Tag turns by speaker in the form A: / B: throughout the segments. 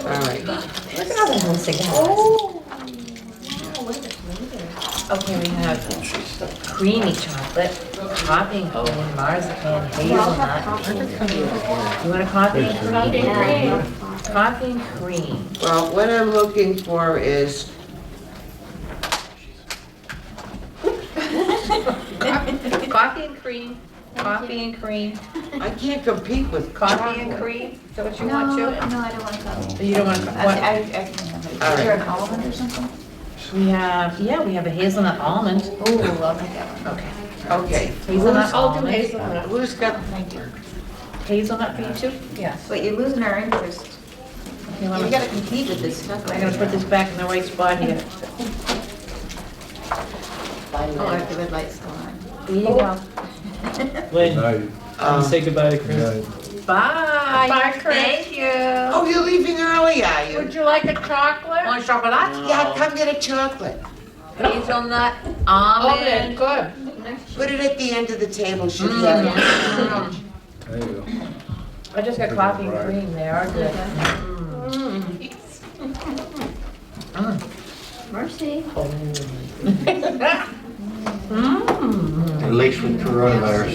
A: All right.
B: Look at all the homes they got.
C: Oh. Wow, look at the flavor.
B: Okay, we have creamy chocolate, topping oat, marzipan,
C: I'll have
B: hazelnut.
C: coffee and cream.
B: You want a coffee and
C: Coffee
B: cream?
C: and
B: Coffee and cream.
A: Well, what I'm looking for is,
B: Coffee and cream, coffee and cream,
A: I can't compete with
B: coffee and cream, is that what you
C: cream.
B: want
C: No,
B: to?
C: no, I don't want to go.
B: You don't want,
C: I,
B: what,
C: I, I can have it. Is
A: All
C: there an almond or something?
B: we have, yeah, we have a hazelnut almond.
C: Ooh, I'll take that one.
B: Okay.
A: Okay,
B: Hazelnut
D: I'll do
B: almond,
D: hazelnut.
A: who's got,
C: Thank you.
B: hazelnut for you too?
D: Yes.
C: But you're losing our interest.
B: Okay, let
C: You
B: me-
C: gotta compete with this stuff.
B: I'm gonna put this back in the right spot here.
C: Oh, if the red light's still on.
B: There you go.
E: Lynn,
F: Night.
E: can you
A: um,
E: say goodbye to Chris?
F: Night.
B: Bye.
D: Bye, Chris.
B: Thank you.
A: oh, you're leaving early, are you?
D: Would you like a chocolate?
B: Want chocolate?
A: Yeah, come get a chocolate.
B: Hazelnut
D: Almond,
B: almond.
D: good.
A: Put it at the end of the table, she'll
B: Mm.
A: have it.
F: There you go.
B: I just got coffee and cream, they are good. Mm.
C: Mercy.
B: Mm.
G: and laced with coronavirus.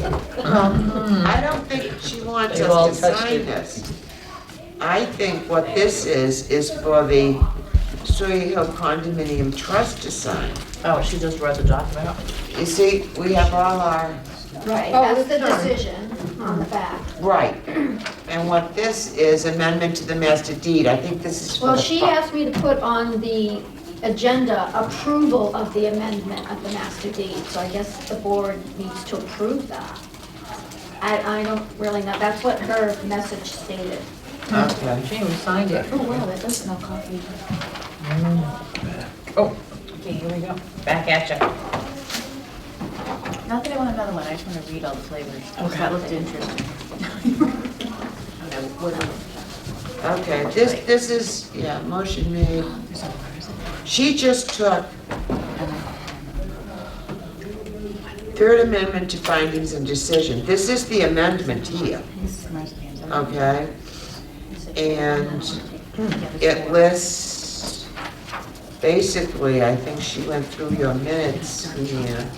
B: Mm.
A: I don't think she wants
B: They've all
A: us to
B: touched
A: sign
B: it.
A: this. I think what this is, is for the Sawyer Hill Condominium Trust to sign.
B: Oh, she just read the document out.
A: You see, we have all our,
D: Right,
B: Oh,
D: that's the
B: it's done.
D: decision on the back.
A: right. And what this is amendment to the master deed, I think this is for the.
D: Well, she
A: fu-
D: asked me to put on the agenda approval of the amendment of the master deed, so I guess the board needs to approve that. I, I don't really know, that's what her message stated.
A: Okay.
B: She even signed it.
C: Oh, wow, that does smell coffee.
B: Okay, here we go. Back at ya.
C: Not that I want another one, I just wanna read all the flavors.
B: Okay.
C: That looked interesting. I don't know, what else?
A: Okay, this, this is, yeah, motion made. She just took Third Amendment to findings and decision. This is the amendment here, okay? And it lists, basically, I think she went through your minutes here.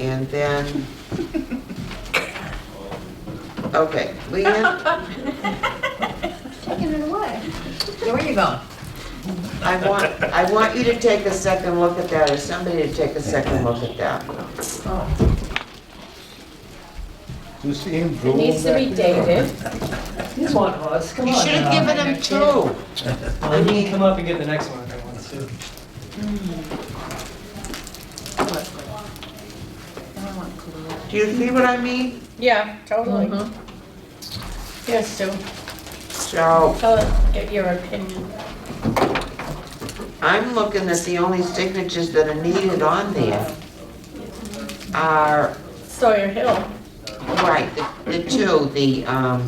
A: And then, okay, Leanne,
D: Taking it away.
B: So Where you going?
A: I want, I want you to take a second look at that, or somebody to take a second look at that.
F: Do you see him drooling back there?
B: dated. Come on, Oz, come
A: You should have given him two.
E: Well, he can come up and get the next one if he wants to.
C: Now I want Kahlua.
A: Do you see what I mean?
H: Yeah, totally.
B: Mhm.
H: Yes, Sue,
A: So,
H: tell us, get your opinion.
A: I'm looking at the only signatures that are needed on there are,
H: Sawyer Hill.
A: right, the- the two, the um,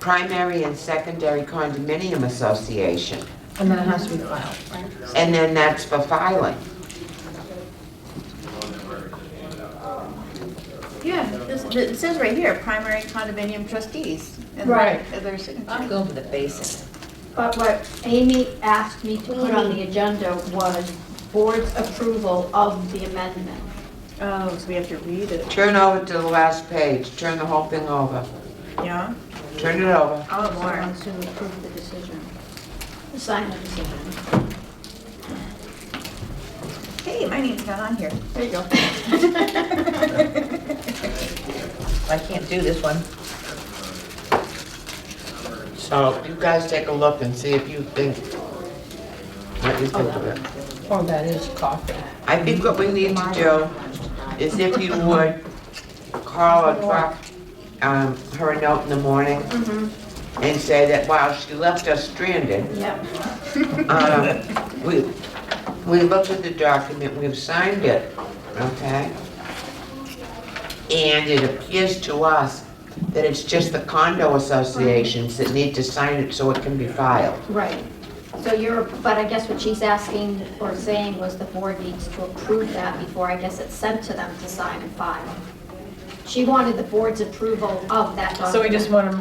A: primary and secondary condominium association.
B: And then it has to be filed.
A: And then that's for filing.
B: Yeah.
C: This- It says right here, primary condominium trustees. and
H: Right.
C: Their signature.
B: I'm going for the basics.
D: But what Amy asked me to put on the agenda was board's approval of the amendment.
C: Oh, so we have to read it.
A: Turn over to the last page, turn the whole thing over,
C: Yeah?
A: turn it over.
C: Oh,
B: more.
D: Wants to approve the decision. Sign the decision.
C: Hey, my name's not on here.
D: There you go.
B: I can't do this one.
A: So you guys take a look and see if you think, what you think of it.
H: Oh, that is coffee.
A: I think what we need to do is if you would call or drop um, her a note in the morning
H: Mm-hmm.
A: and say that, wow, she left us stranded.
D: Yep.
A: Um, We, we looked at the document, we've signed it, okay? And it appears to us that it's just the condo associations that need to sign it so it can be filed.
D: Right. So you're, but I guess what she's asking or saying was the board needs to approve that before I guess it's sent to them to sign and file. She wanted the board's approval of that document.
B: So we just want to